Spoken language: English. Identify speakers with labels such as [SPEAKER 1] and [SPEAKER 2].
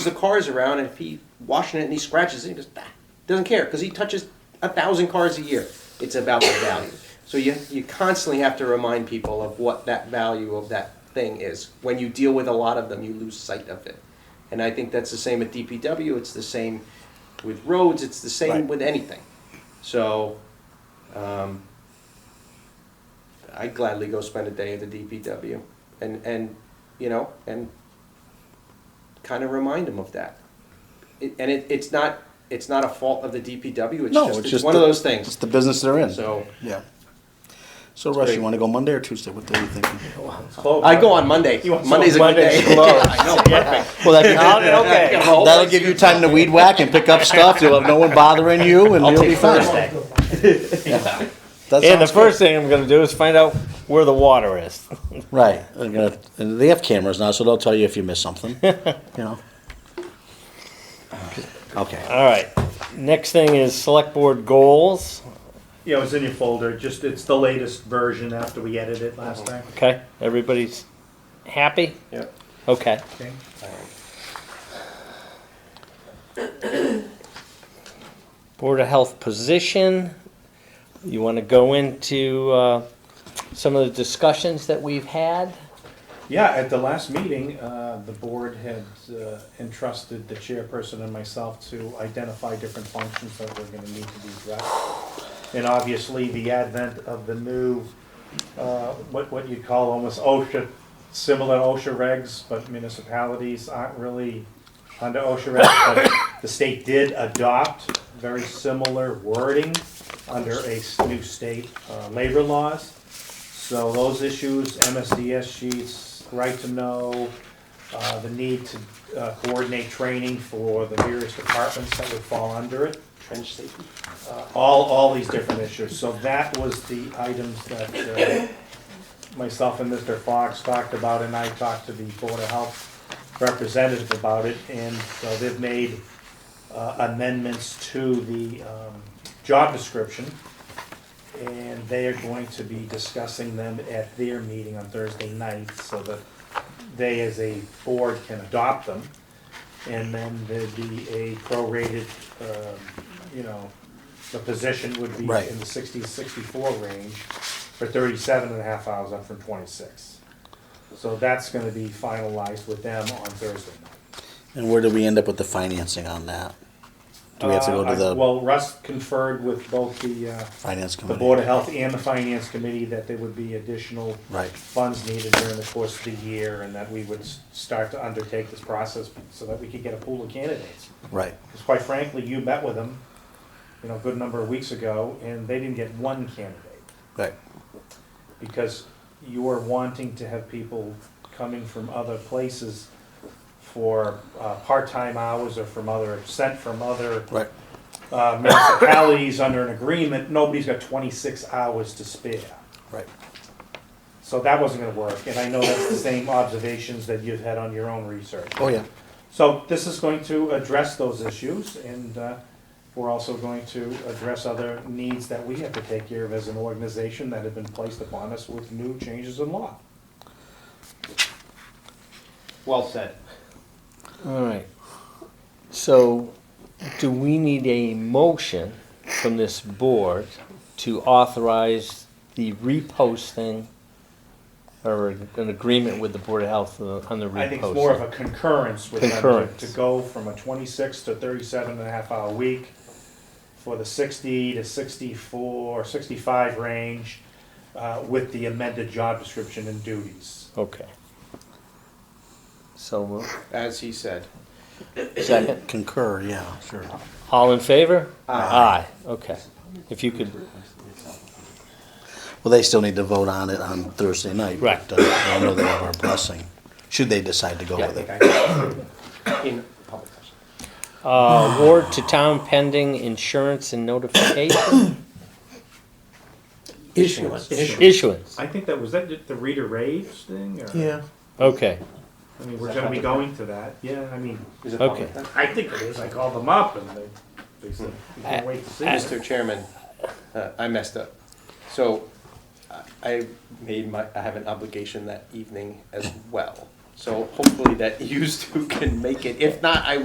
[SPEAKER 1] the cars around, and if he washing it and he scratches it, he just ah, doesn't care because he touches a thousand cars a year. It's about the value. So you you constantly have to remind people of what that value of that thing is. When you deal with a lot of them, you lose sight of it. And I think that's the same at DPW. It's the same with roads. It's the same
[SPEAKER 2] Right.
[SPEAKER 1] with anything. So. Um, I gladly go spend a day at the DPW, and and you know and kind of remind them of that. It, and it, it's not it's not a fault of the DPW. It's
[SPEAKER 2] No,
[SPEAKER 1] just
[SPEAKER 2] it's
[SPEAKER 1] it's
[SPEAKER 2] just
[SPEAKER 1] one
[SPEAKER 2] the-
[SPEAKER 1] of those
[SPEAKER 2] It's
[SPEAKER 1] things.
[SPEAKER 2] the business they're in.
[SPEAKER 1] So
[SPEAKER 2] Yeah. So Russ,
[SPEAKER 1] great.
[SPEAKER 2] you wanna go Monday or Tuesday? What day are you thinking?
[SPEAKER 1] I go on Monday.
[SPEAKER 3] You want
[SPEAKER 1] Monday's a
[SPEAKER 3] some-
[SPEAKER 1] good day.
[SPEAKER 3] Monday's closed.
[SPEAKER 1] I know, perfect.
[SPEAKER 2] Well, that,
[SPEAKER 3] Okay.
[SPEAKER 1] Yeah, well,
[SPEAKER 2] that'll give you time to weed whack and pick up stuff. You'll have no one bothering you and
[SPEAKER 3] I'll
[SPEAKER 2] you'll be
[SPEAKER 3] take
[SPEAKER 2] fine.
[SPEAKER 3] Thursday.
[SPEAKER 2] That
[SPEAKER 3] And the
[SPEAKER 2] sounds good.
[SPEAKER 3] first thing I'm gonna do is find out where the water is.
[SPEAKER 2] Right. They're gonna- and They have cameras now, so they'll tell you if you miss something, you know? Okay.
[SPEAKER 3] All right. Next thing is select board goals.
[SPEAKER 4] Yeah, it was in your folder, just, it's the latest version after we edited it last time.
[SPEAKER 3] Okay, everybody's happy?
[SPEAKER 1] Yeah.
[SPEAKER 3] Okay.
[SPEAKER 4] Okay.
[SPEAKER 3] Board of Health position. You want to go into uh, some of the discussions that we've had?
[SPEAKER 5] Yeah, at the last meeting, uh, the board had uh, entrusted the chairperson and myself to identify different functions that were gonna need to be addressed. And obviously, the advent of the new, uh, what, what you'd call almost OSHA, similar OSHA regs, but municipalities aren't really under OSHA regs, but the state did adopt very similar wording under a s- new state uh, labor laws. So those issues, MSDS sheets, right to know, uh, the need to uh, coordinate training for the various departments that would fall under it,
[SPEAKER 1] Trench safety.
[SPEAKER 5] uh, all, all these different issues. So that was the items that uh, myself and Mr. Fox talked about, and I talked to the Board of Health representative about it, and so they've made uh, amendments to the um, job description, and they are going to be discussing them at their meeting on Thursday night, so that they as a board can adopt them. And then there'd be a prorated, um, you know, the position would be
[SPEAKER 2] Right.
[SPEAKER 5] in the 60 64 range for 37 and a half hours up from twenty-six. So that's gonna be finalized with them on Thursday night.
[SPEAKER 2] And where do we end up with the financing on that? Do we have to go
[SPEAKER 5] Uh,
[SPEAKER 2] to
[SPEAKER 5] I-
[SPEAKER 2] the
[SPEAKER 5] Well, Russ conferred with both the, uh,
[SPEAKER 2] finance
[SPEAKER 5] the
[SPEAKER 2] committee?
[SPEAKER 5] Board of Health and the Finance Committee that there would be additional
[SPEAKER 2] Right.
[SPEAKER 5] funds needed during the course of the year and that we would s- start to undertake this process so that we could get a pool of candidates.
[SPEAKER 2] Right.
[SPEAKER 5] Because quite frankly, you met with them, you know, a good number of weeks ago, and they didn't get one candidate.
[SPEAKER 2] Right.
[SPEAKER 5] because you are wanting to have people coming from other places for uh, part-time hours or from other, sent from other
[SPEAKER 2] Right.
[SPEAKER 5] uh, municipalities under an agreement, nobody's got 26 hours to spare.
[SPEAKER 2] Right.
[SPEAKER 5] So that wasn't going to work, and I know that's the same observations that you've had on your own research.
[SPEAKER 2] Oh, yeah.
[SPEAKER 5] So this is going to address those issues, and uh, we're also going to address other needs that we have to take care of as an organization that have been placed upon us with new changes in law.
[SPEAKER 1] Well said.
[SPEAKER 3] All right. So, do we need a motion from this board to authorize the reposting or an agreement with the Board of Health on the reposting?
[SPEAKER 5] I think it's more of a concurrence with them to- to
[SPEAKER 3] Concurrence.
[SPEAKER 5] go from a twenty-six to 37 and a half hour week for the sixty to 64, 65 range, uh, with the amended job description and duties.
[SPEAKER 3] Okay. So, moved.
[SPEAKER 1] As he said.
[SPEAKER 2] Second. Concur, yeah, sure.
[SPEAKER 3] all in favor?
[SPEAKER 2] Aye.
[SPEAKER 3] Aye, okay. If you could
[SPEAKER 2] Well, they still need to vote on it on Thursday night.
[SPEAKER 3] Right.
[SPEAKER 2] but, uh, I know they have our blessing, should they decide to go with it.
[SPEAKER 1] In public session.
[SPEAKER 3] Uh, award to town pending insurance and notification
[SPEAKER 2] Issuance.
[SPEAKER 3] issuance.
[SPEAKER 5] I think that, was that the reader raves thing, or?
[SPEAKER 2] Yeah.
[SPEAKER 3] Okay,
[SPEAKER 5] I mean, we're gonna be going to that, yeah, I mean,
[SPEAKER 1] Is it
[SPEAKER 3] Okay.
[SPEAKER 1] public?
[SPEAKER 5] I think it is, I called them up and they, they said, we can't wait to see it.
[SPEAKER 1] Mr. Chairman, uh, I messed up. So I- I made my, I have an obligation that evening as well. So hopefully that used two can make it. If not, I